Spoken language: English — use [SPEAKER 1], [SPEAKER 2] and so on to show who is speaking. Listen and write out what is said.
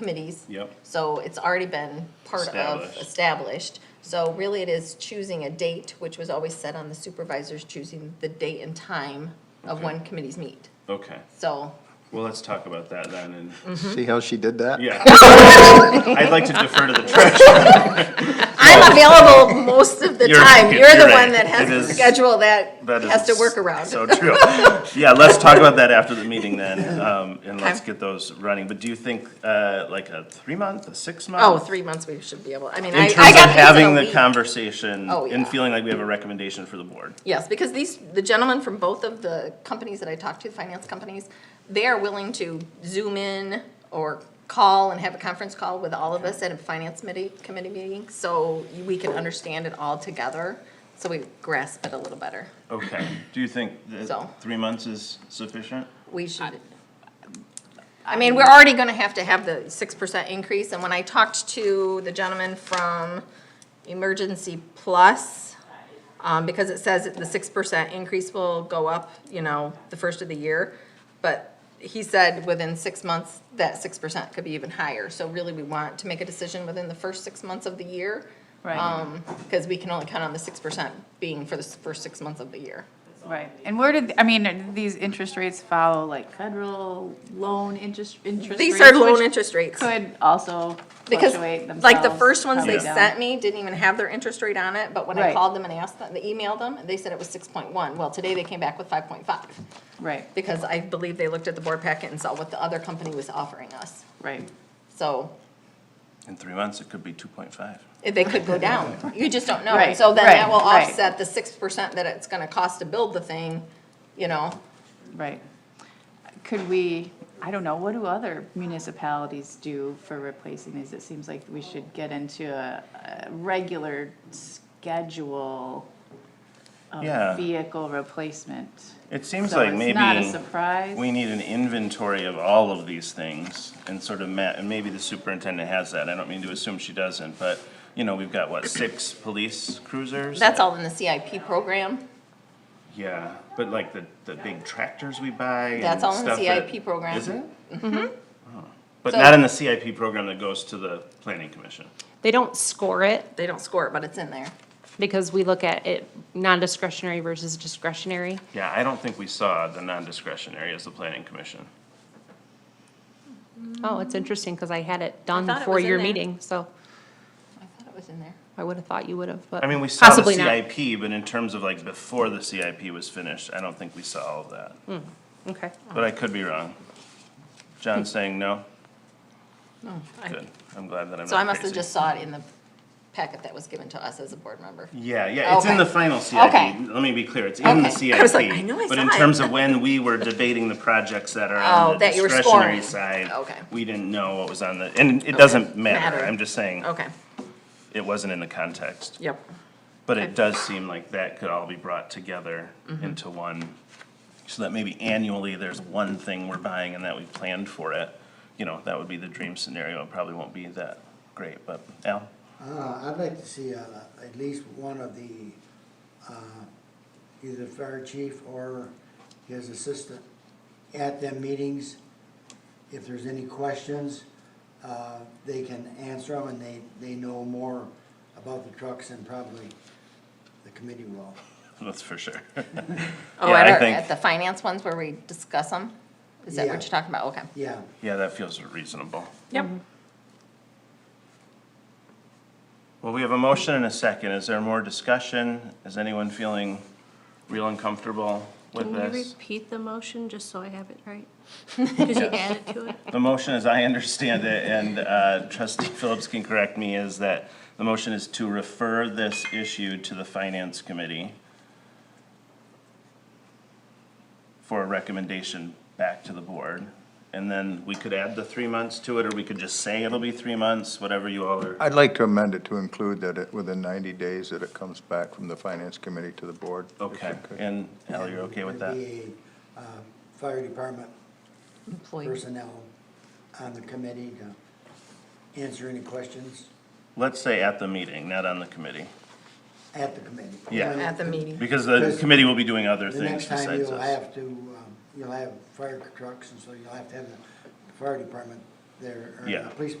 [SPEAKER 1] committees.
[SPEAKER 2] Yep.
[SPEAKER 1] So it's already been part of,
[SPEAKER 2] Established.
[SPEAKER 1] established. So really it is choosing a date, which was always set on the supervisors, choosing the date and time of
[SPEAKER 2] Okay.
[SPEAKER 1] when committees meet.
[SPEAKER 2] Okay,
[SPEAKER 1] So,
[SPEAKER 2] well, let's talk about that then, and,
[SPEAKER 3] See how she did that?
[SPEAKER 2] yeah. I'd like to defer to the treasurer.
[SPEAKER 1] I'm available most of the
[SPEAKER 2] You're-
[SPEAKER 1] time. You're
[SPEAKER 2] you're
[SPEAKER 1] the
[SPEAKER 2] right.
[SPEAKER 1] one that has
[SPEAKER 2] It
[SPEAKER 1] to
[SPEAKER 2] is-
[SPEAKER 1] schedule that,
[SPEAKER 2] That is
[SPEAKER 1] has to work around.
[SPEAKER 2] So true. Yeah, let's talk about that after the meeting then, um, and let's get those running. But do you think, uh, like a three month, a six month?
[SPEAKER 1] Oh, three months we should be able, I mean, I, I
[SPEAKER 2] In
[SPEAKER 1] got
[SPEAKER 2] terms
[SPEAKER 1] these in
[SPEAKER 2] of
[SPEAKER 1] a
[SPEAKER 2] having the
[SPEAKER 1] week.
[SPEAKER 2] conversation
[SPEAKER 1] Oh,
[SPEAKER 2] and
[SPEAKER 1] yeah.
[SPEAKER 2] feeling like we have a recommendation for the board.
[SPEAKER 1] Yes, because these, the gentlemen from both of the companies that I talked to, the finance companies, they are willing to Zoom in or call and have a conference call with all of us at a finance committee, committee meeting, so we can understand it all together, so we grasp it a little better.
[SPEAKER 2] Okay, do you think
[SPEAKER 1] So.
[SPEAKER 2] that three months is sufficient?
[SPEAKER 1] We should. I mean, we're already gonna have to have the six percent increase, and when I talked to the gentleman from Emergency Plus, um, because it says that the six percent increase will go up, you know, the first of the year, but he said within six months, that six percent could be even higher, so really we want to make a decision within the first six months of the year.
[SPEAKER 4] Right.
[SPEAKER 1] Um, cause we can only count on the six percent being for the s- first six months of the year.
[SPEAKER 4] Right, and where did, I mean, are these interest rates follow like federal loan interest, interest
[SPEAKER 1] These are
[SPEAKER 4] rates,
[SPEAKER 1] loan
[SPEAKER 4] which
[SPEAKER 1] interest rates.
[SPEAKER 4] Could also
[SPEAKER 1] Because,
[SPEAKER 4] fluctuate themselves.
[SPEAKER 1] like, the first ones
[SPEAKER 4] probably
[SPEAKER 1] they
[SPEAKER 4] down.
[SPEAKER 1] sent me didn't even have their interest rate on it, but when I
[SPEAKER 4] Right.
[SPEAKER 1] called them and asked them, they emailed them, they said it was six point one. Well, today they came back with five point five,
[SPEAKER 4] Right,
[SPEAKER 1] because I believe they looked at the board packet and saw what the other company was offering us.
[SPEAKER 4] right.
[SPEAKER 1] So
[SPEAKER 2] In three months, it could be two point five.
[SPEAKER 1] eh, they could go down. You just don't know.
[SPEAKER 4] Right,
[SPEAKER 1] So then that
[SPEAKER 4] right,
[SPEAKER 1] will
[SPEAKER 4] right.
[SPEAKER 1] offset the six percent that it's gonna cost to build the thing, you know?
[SPEAKER 4] Right. Could we, I don't know, what do other municipalities do for replacing these? It seems like we should get into a, a regular schedule
[SPEAKER 1] Oh,
[SPEAKER 2] Yeah.
[SPEAKER 4] of vehicle replacement.
[SPEAKER 2] It seems
[SPEAKER 4] So
[SPEAKER 2] like
[SPEAKER 4] it's
[SPEAKER 2] maybe.
[SPEAKER 4] not a surprise.
[SPEAKER 2] We need an inventory of all of these things and sort of ma- and maybe the superintendent has that. I don't mean to assume she doesn't, but, you know, we've got, what, six police cruisers?
[SPEAKER 1] That's all in the CIP program.
[SPEAKER 2] Yeah, but like the, the big tractors we buy and
[SPEAKER 1] That's all in the
[SPEAKER 2] stuff that-
[SPEAKER 1] CIP program.
[SPEAKER 2] Is it? Mm-hmm. But
[SPEAKER 1] So-
[SPEAKER 2] not in the CIP program that goes to the planning commission.
[SPEAKER 5] They don't score it
[SPEAKER 1] They don't score it, but it's in there.
[SPEAKER 5] because we look at it non-discretionary versus discretionary.
[SPEAKER 2] Yeah, I don't think we saw the non-discretionary as the planning commission.
[SPEAKER 5] Oh, it's interesting because I had it done
[SPEAKER 1] thought it
[SPEAKER 5] before
[SPEAKER 1] was in
[SPEAKER 5] your
[SPEAKER 1] there.
[SPEAKER 5] meeting, so
[SPEAKER 1] I thought it was in there.
[SPEAKER 5] I would have thought you would have, but
[SPEAKER 2] I mean, we saw the
[SPEAKER 5] possibly not.
[SPEAKER 2] CIP, but in terms of like before the CIP was finished, I don't think we saw all of that.
[SPEAKER 5] Okay.
[SPEAKER 2] But I could be wrong. John's saying no?
[SPEAKER 1] Hmm. Oh, I-
[SPEAKER 2] Good. I'm glad that I'm not crazy.
[SPEAKER 1] So Oh, I must have just saw it in the packet that was given to us as a board member.
[SPEAKER 2] Yeah, yeah, it's in
[SPEAKER 1] Okay.
[SPEAKER 2] the final CIP.
[SPEAKER 1] Okay,
[SPEAKER 2] Let me be clear, it's in the
[SPEAKER 1] Okay.
[SPEAKER 2] CIP.
[SPEAKER 1] I was like, I know I
[SPEAKER 2] But
[SPEAKER 1] saw
[SPEAKER 2] in
[SPEAKER 1] it.
[SPEAKER 2] terms of when we were debating the projects that are on
[SPEAKER 1] Oh,
[SPEAKER 2] the
[SPEAKER 1] that you were
[SPEAKER 2] discretionary
[SPEAKER 1] scoring.
[SPEAKER 2] side.
[SPEAKER 1] Okay.
[SPEAKER 2] We didn't know what was on the, and it doesn't matter.
[SPEAKER 1] Matter.
[SPEAKER 2] I'm just saying,
[SPEAKER 1] Okay,
[SPEAKER 2] it wasn't in the context.
[SPEAKER 1] yep.
[SPEAKER 2] But it does seem like that could all be brought together into one, so that maybe annually there's one thing we're buying and that we planned for it. You know, that would be the dream scenario. It probably won't be that great, but Al?
[SPEAKER 6] Uh, I'd like to see, uh, at least one of the, uh, either the fire chief or his assistant at them meetings. If there's any questions, uh, they can answer them and they, they know more about the trucks than probably the committee will.
[SPEAKER 2] That's for sure.
[SPEAKER 1] Oh,
[SPEAKER 2] Yeah,
[SPEAKER 1] at
[SPEAKER 2] I
[SPEAKER 1] our,
[SPEAKER 2] think-
[SPEAKER 1] at the finance ones where we discuss them? Is that what
[SPEAKER 6] Yeah.
[SPEAKER 1] you're talking about? Okay.
[SPEAKER 6] Yeah,
[SPEAKER 2] Yeah, that feels reasonable.
[SPEAKER 1] Yep.
[SPEAKER 2] Well, we have a motion and a second. Is there more discussion? Is anyone feeling real uncomfortable with
[SPEAKER 7] Can you
[SPEAKER 2] this?
[SPEAKER 7] repeat the motion, just so I have it right? Because you added to it.
[SPEAKER 2] The motion, as I understand it, and uh, trustee Phillips can correct me, is that the motion is to refer this issue to the finance committee for a recommendation back to the board. And then we could add the three months to it, or we could just say it'll be three months, whatever you all are.
[SPEAKER 3] I'd like to amend it to include that it, within ninety days, that it comes back from the finance committee to the board. if you
[SPEAKER 2] Okay,
[SPEAKER 3] could.
[SPEAKER 2] and Al, you're okay with that?
[SPEAKER 6] There'd be a, uh, fire department
[SPEAKER 1] Employee.
[SPEAKER 6] personnel on the committee to answer any questions
[SPEAKER 2] Let's say at the meeting, not on the committee,
[SPEAKER 6] at the committee.
[SPEAKER 2] Yeah.
[SPEAKER 1] At the meeting.
[SPEAKER 2] because the
[SPEAKER 6] Because
[SPEAKER 2] committee will be doing other
[SPEAKER 6] The
[SPEAKER 2] things
[SPEAKER 6] next time
[SPEAKER 2] besides
[SPEAKER 6] you'll
[SPEAKER 2] us.
[SPEAKER 6] have to, um, you'll have fire trucks, and so you'll have to have the fire department there, or
[SPEAKER 2] Yeah.
[SPEAKER 6] the police